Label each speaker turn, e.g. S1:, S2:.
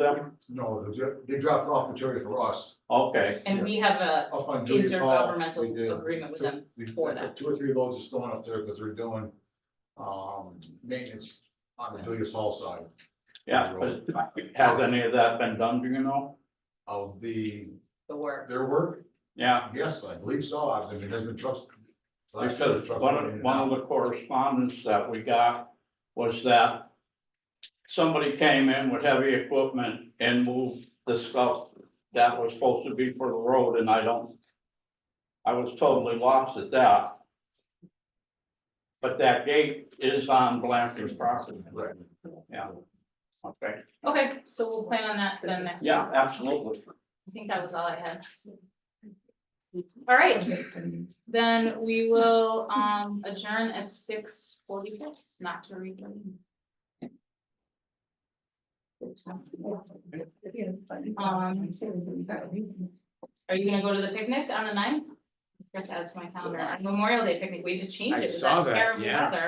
S1: them?
S2: No, they dro- they dropped off material for us
S1: Okay,
S3: And we have a
S2: up on Julia Hall. we did.
S3: intergovernmental agreement with
S2: So
S3: them.
S2: We
S3: for
S2: took
S3: that.
S2: two or three loads of stone up there because we're doing um maintenance on the Julia Hall side
S1: yeah, but has any of that been done, do you know?
S2: of the,
S3: The work.
S2: their work.
S1: Yeah,
S2: Yes, I believe so. I mean, there's been trucks. last year,
S1: because
S2: trucks
S1: one
S2: running in
S1: of,
S2: and
S1: one of
S2: out.
S1: the correspondence that we got was that somebody came in with heavy equipment and moved the stuff that was supposed to be for the road, and I don't, I was totally lost at that. But that gate is on Blanford's property.
S2: Right.
S1: Yeah. Okay,
S3: Okay, so we'll plan on that then next.
S1: yeah,
S3: week.
S1: absolutely.
S3: I think that was all I had. All right, then we will um adjourn at six forty-six, not to read. Um, Are you gonna go to the picnic on the ninth? I forgot to add to my calendar, Our Memorial Day picnic, we had to change
S4: I
S3: it. with
S4: saw that,
S3: terrible
S4: yeah.
S3: weather.